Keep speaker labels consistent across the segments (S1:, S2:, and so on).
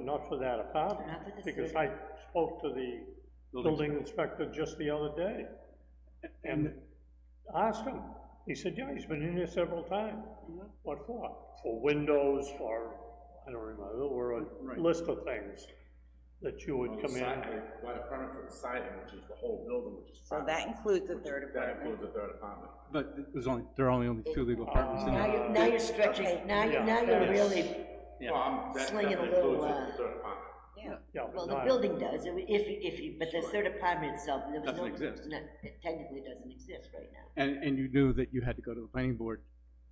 S1: not for that apartment.
S2: Not for the
S1: Because I
S2: student.
S1: spoke to the building inspector just the other day and asked him. He said, yeah, he's been in here several times.
S2: Mm-hmm.
S1: What for? For windows, for, I don't remember, there were
S3: Right.
S1: a list of things that you would
S3: On the
S1: come
S3: side,
S1: in.
S3: they got a permit for the siding, which is the whole building, which is.
S4: So that includes a third
S3: That
S4: apartment.
S3: includes the third apartment.
S5: But there's only, there are only only two legal
S1: Um,
S5: apartments in
S2: Now
S5: there.
S2: you're, now you're stretching, now, you- now you're really,
S3: Well, I'm, that
S2: Slinging a
S3: definitely
S2: little,
S3: includes
S2: uh,
S3: the third apartment.
S4: Yeah.
S1: Yeah, but
S2: well, the
S1: not,
S2: building does, if, if, you- but the third apartment itself, there was no.
S5: Doesn't exist.
S2: no, it technically doesn't exist right now.
S5: And, and you knew that you had to go to the planning board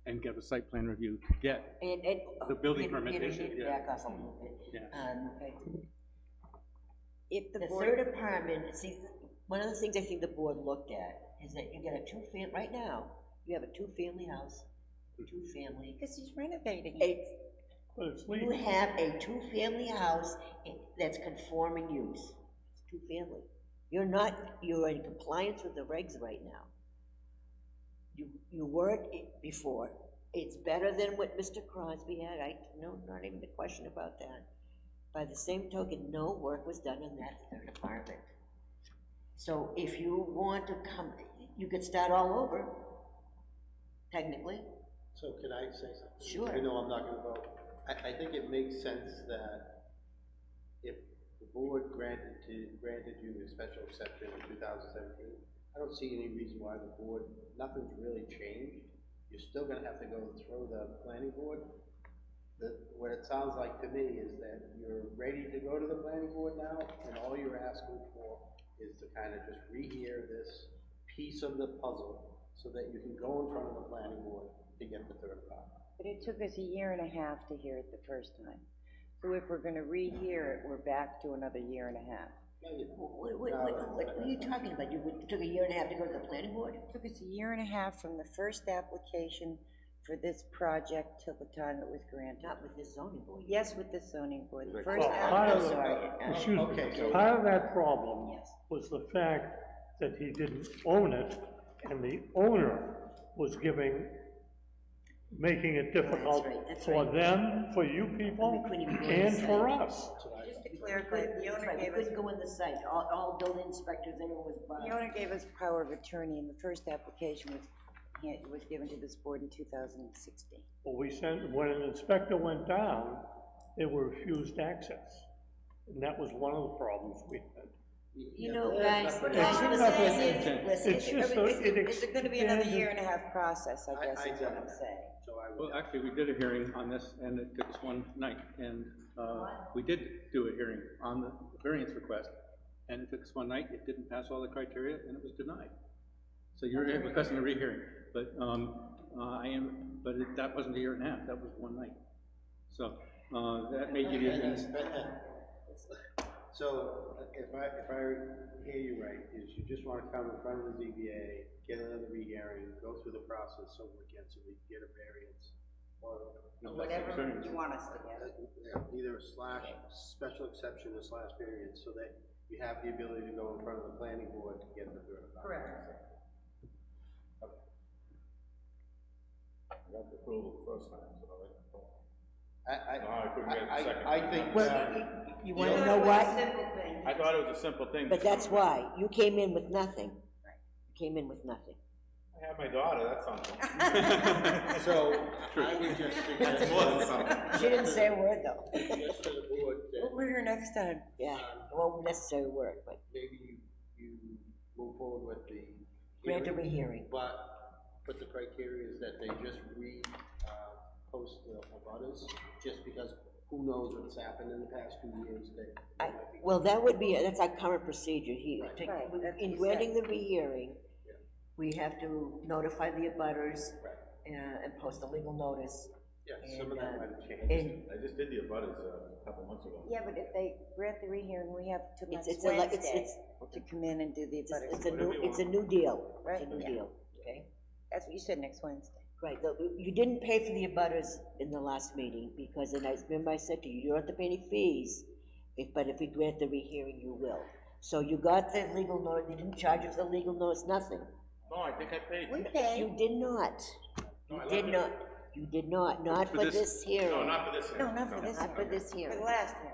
S5: and get a site plan review to get.
S2: And, and.
S5: The building
S2: you know,
S5: permit
S2: you know, you
S5: issue,
S2: need to
S5: yeah.
S2: Back off a little bit.
S5: Yeah.
S2: Um, okay.
S4: If the
S2: The
S4: board,
S2: third apartment, see, one of the things I think the board looked at is that you get a two-fam, right now, you have a two-family house,
S5: Hmm.
S2: two-family.
S4: because he's renovating it.
S2: It's,
S1: but it's
S2: you
S1: legal.
S2: have a two-family house that's conforming use, it's two-family. You're not, you're in compliance with the regs right now. You, you weren't i- before. It's better than what Mr. Crosby had, I, no, not even a question about that. By the same token, no work was done in that third apartment. So if you want to come, you could start all over, technically.
S6: So can I say something?
S2: Sure.
S6: I know I'm not gonna vote. I, I think it makes sense that if the board granted to, granted you a special exception in two thousand seventeen, I don't see any reason why the board, nothing's really changed. You're still gonna have to go through the planning board. The, what it sounds like to me is that you're ready to go to the planning board now, and all you're asking for is to kind of just rehear this piece of the puzzle so that you can go in front of the planning board to get the third part.
S7: But it took us a year and a half to hear it the first time. So if we're gonna rehear it, we're back to another year and a half.
S2: What, what, what, what are you talking about? You would- took a year and a half to go to the planning board?
S7: It took us a year and a half from the first application for this project till the time it was granted.
S2: Not with this zoning board.
S7: Yes, with the zoning board, the first,
S1: Well, part
S7: app-
S1: of
S7: I'm
S1: the-
S7: sorry. uh,
S1: Excuse
S6: Oh, Okay,
S1: me,
S6: so-
S1: part of that problem
S7: Yes.
S1: was the fact that he didn't own it, and the owner was giving, making it difficult
S2: right, that's
S1: for
S2: right.
S1: them, for you people,
S2: We couldn't even go
S1: and
S2: inside.
S1: for us.
S7: Just to
S2: That's
S7: clarify,
S2: right,
S7: the owner
S2: we
S7: gave us,
S2: couldn't go in the site, all, all building inspectors, everyone was
S7: the
S2: barred.
S7: owner gave us power of attorney and the first application was, hand- was given to this board in two thousand and sixteen.
S1: But we sent, when an inspector went down, they were refused access, and that was one of the problems we had.
S2: You know, guys,
S6: But
S1: It's
S7: I'm
S1: nothing-
S7: saying is-
S1: it's-
S2: listen,
S1: It's just, a- it
S7: Is it gonna be another
S1: expanded-
S7: year and a half process, I
S6: I-
S7: guess
S6: I
S7: is what
S6: don't
S7: I'm
S6: know.
S7: saying.
S6: So I would,
S5: Well, actually, we did a hearing on this, and it took us one night, and, uh, we did do a hearing on the variance request, and it took us one night, it didn't pass all the criteria, and it was denied. So you're requesting a rehearing, but, um, uh, I am, but it- that wasn't a year and a half, that was one night. So, uh, that may give you,
S6: And that's- so if I, if I hear you right, is you just wanna come in front of the ZBA, get another rehearing, go through the process over again so we can get a variance. Or,
S5: no, like,
S7: Whatever
S5: concerns.
S7: you want us to get.
S6: uh, yeah, either a slash, special exception or slash variance, so that you have the ability to go in front of the planning board to get the third part.
S3: I got the approval the first time, so I like the approval.
S6: I,
S3: No, I couldn't
S6: I,
S3: get a second.
S6: I, I think, uh,
S2: Well, you wanna know why?
S3: I thought it was a simple thing.
S2: But that's why, you came in with nothing. You Came in with nothing.
S3: I have my daughter, that's something.
S6: so, I would just suggest.
S3: More than something.
S2: She didn't say a word though.
S6: Just to the board, that
S7: We'll her next time.
S2: Yeah, it won't necessarily work, but
S6: maybe you, you move forward with the.
S2: grant a
S6: hearing,
S2: rehearing.
S6: But, but the criteria is that they just re, uh, post the abutters, just because who knows what's happened in the past two years, they.
S2: I, well, that would be, that's our current procedure here.
S6: Right.
S2: To-
S7: Right, that's what
S2: In
S7: you
S2: granting the rehearing, we have to notify the abutters uh, and post a legal notice.
S6: Yeah, some of
S2: And,
S6: that
S2: uh,
S6: might have changed.
S2: And
S3: I just did the abutters uh, a couple months ago.
S7: Yeah, but if they grant the rehearing, we have till
S2: It's-
S7: next
S2: it's a le- it's-
S7: Wednesday
S2: it's-
S7: to come in and do the
S2: it's, it's
S7: abutters.
S2: a new, it's a new deal, it's
S7: Right,
S2: a new
S7: yeah.
S2: deal, okay?
S7: That's what you said, next Wednesday.
S2: Right, though, you didn't pay for the abutters in the last meeting, because, and I remember I said to you, you don't have to pay any fees, if, but if we grant the rehearing, you will. So you got the legal notice, they didn't charge you for the legal notice, nothing.
S3: No, I think I paid.
S7: We paid.
S2: You did not. You
S3: No, I left
S2: did
S3: it.
S2: not, you did not, not for
S5: this-
S2: this hearing.
S3: No, not for this.
S7: No, not for this.
S2: Not for this hearing.
S7: For the last one.